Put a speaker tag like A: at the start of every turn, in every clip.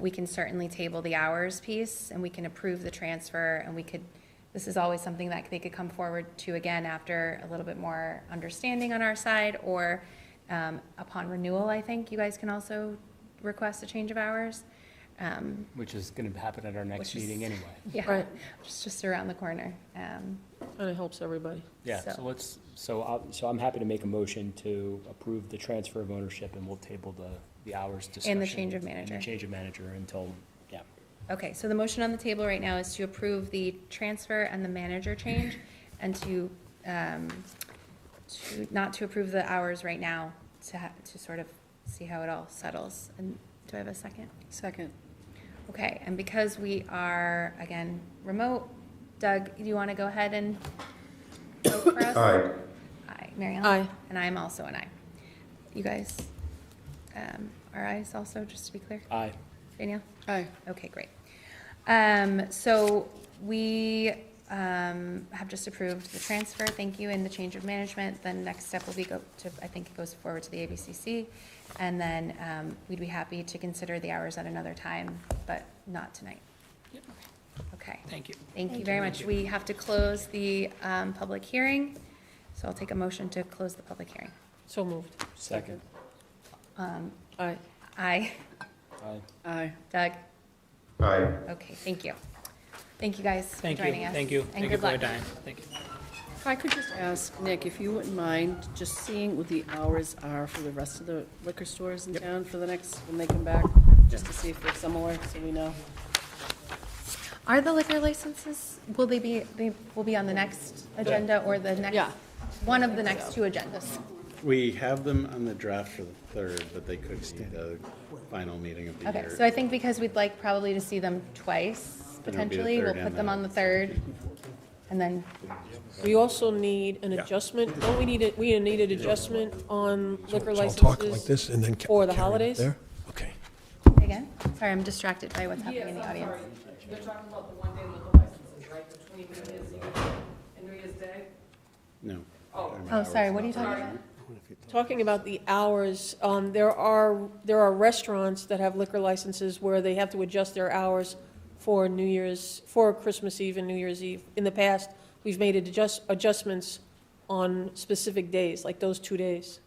A: we can certainly table the hours piece, and we can approve the transfer, and we could, this is always something that they could come forward to again after a little bit more understanding on our side, or um, upon renewal, I think you guys can also request a change of hours. Um,
B: which is going to happen at our next
A: Which is-
B: meeting anyway.
A: Yeah,
C: Right.
A: it's just around the corner. Um,
C: And it helps everybody.
B: Yeah, so
A: So-
B: let's, so I, so I'm happy to make a motion to approve the transfer of ownership and we'll table the, the hours discussion.
A: change of manager.
B: And the change of manager until, yeah.
A: Okay, so the motion on the table right now is to approve the transfer and the manager change, and to, um, to, not to approve the hours right now, to ha, to sort of see how it all settles. And do I have a second?
C: Second.
A: Okay, and because we are, again, remote, Doug, do you want to go ahead and vote for us?
D: Aye.
A: Aye, Mary Ellen?
C: Aye.
A: And I'm also an aye. You guys, um, are ayes also, just to be clear?
B: Aye,
A: Danielle?
C: Aye.
A: Okay, great. Um, so we, um, have just approved the transfer, thank you, and the change of management. Then next step will be go to, I think it goes forward to the ABCC. And then, um, we'd be happy to consider the hours at another time, but not tonight. Okay.
E: Thank you.
A: Thank you very much. We have to close the, um, public hearing. So I'll take a motion to close the public hearing.
C: So moved.
B: second,
C: Aye.
A: Aye.
B: aye.
C: Aye.
A: Doug?
D: Aye.
A: Okay, thank you. Thank you guys for
E: Thank you,
A: joining us.
E: thank you.
A: And
E: Thank you
A: good
E: for your
A: luck.
E: time. Thank you.
F: If I could just ask, Nick, if you wouldn't mind, just seeing what the hours are for the rest of the liquor stores in town for the next, when they come back, just to see if they're similar, so we know.
A: Are the liquor licenses, will they be, they will be on the next agenda or the next?
F: Yeah.
A: One of the next two agendas.
G: We have them on the draft for the third, but they could be the final meeting of the
A: Okay,
G: year.
A: so I think because we'd like probably to see them twice
G: Then it'll be the
A: potentially, we'll
G: third and
A: put them
G: the-
A: on the third. And then,
C: We also need an adjustment, don't we need, a- we need an adjustment on liquor
H: So I'll
C: licenses?
H: talk like this and then. ca-
C: for the
H: carry it
C: holidays?
H: there? Okay.
A: again, sorry, I'm distracted by what's happening in the audience. Oh,
F: You're talking about the one-day liquor licenses, right, between New Year's Eve and New Year's Day?
G: No.
A: Oh, sorry, what are you talking about?
C: Talking about the hours, um, there are, there are restaurants that have liquor licenses where they have to adjust their hours for New Year's, for Christmas Eve and New Year's Eve. In the past, we've made adjust, adjustments on specific days, like those two days.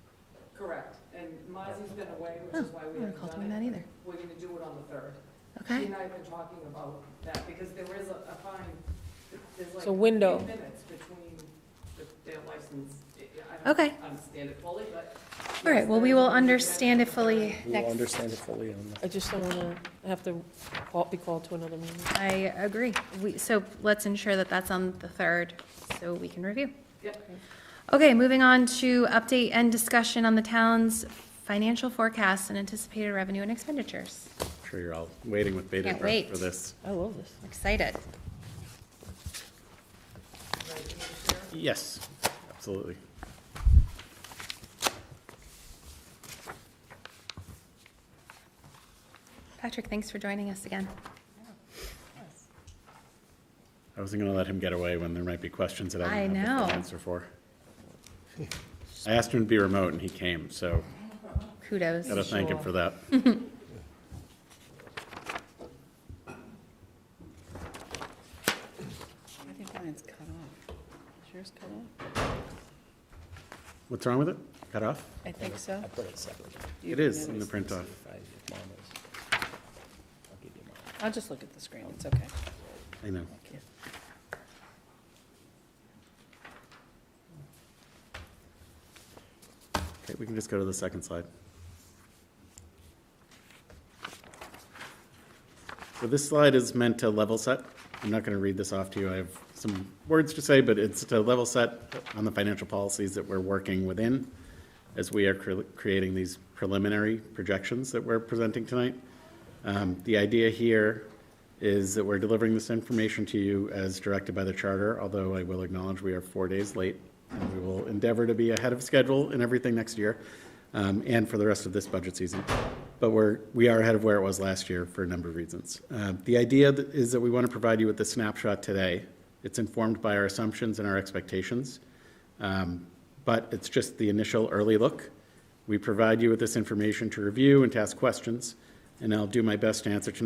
I: Correct, and Mozzie's been away, which is why we
A: I don't
I: haven't
A: recall
I: done it.
A: doing that Oh, either.
I: We're gonna do it on the third. She
A: Okay,
I: and I have been talking about that, because there is a a fine, there's like.
C: It's a window.
I: three minutes between the- their license. I don't
A: Okay.
I: understand it fully, but.
A: all right, well, we will understand it fully
B: We'll
A: next.
B: understand it fully on the
C: I just don't wanna have to call- be called to another meeting.
A: I agree. We, so let's ensure that that's on the third, so we can review.
I: Yep.
A: Okay, moving on to update and discussion on the town's financial forecasts and anticipated revenue and expenditures.
G: I'm Sure you're all waiting with bated
A: Can't
G: breath
A: wait.
G: for this.
C: I love this.
A: Excited.
G: Yes, absolutely.
A: Patrick, thanks for joining us again.
G: I wasn't going to let him get away when there might be questions that
A: I
G: I didn't have the
A: know.
G: full answer for. I asked him to be remote and he came, so
A: Kudos.
G: gotta thank him
C: Sure.
G: for that.
F: I think mine's cut off. Is yours cut off?
G: What's wrong with it? Cut off?
F: I think so.
B: I put it separate.
G: It is in the print off.
B: If I- if mine is- I'll give you mine.
F: I'll just look at the screen, it's okay.
G: I know.
F: Thank you.
G: Okay, we can just go to the second slide. So this slide is meant to level set. I'm not going to read this off to you. I have some words to say, but it's to level set on the financial policies that we're working within as we are cre- creating these preliminary projections that we're presenting tonight. Um, The idea here is that we're delivering this information to you as directed by the charter, although I will acknowledge we are four days late. And we will endeavor to be ahead of schedule in everything next year um, and for the rest of this budget season. But we're, we are ahead of where it was last year for a number of reasons. Uh, The idea that- is that we want to provide you with a snapshot today. It's informed by our assumptions and our expectations. Um, But it's just the initial early look. We provide you with this information to review and to ask questions, and I'll do my best to answer tonight.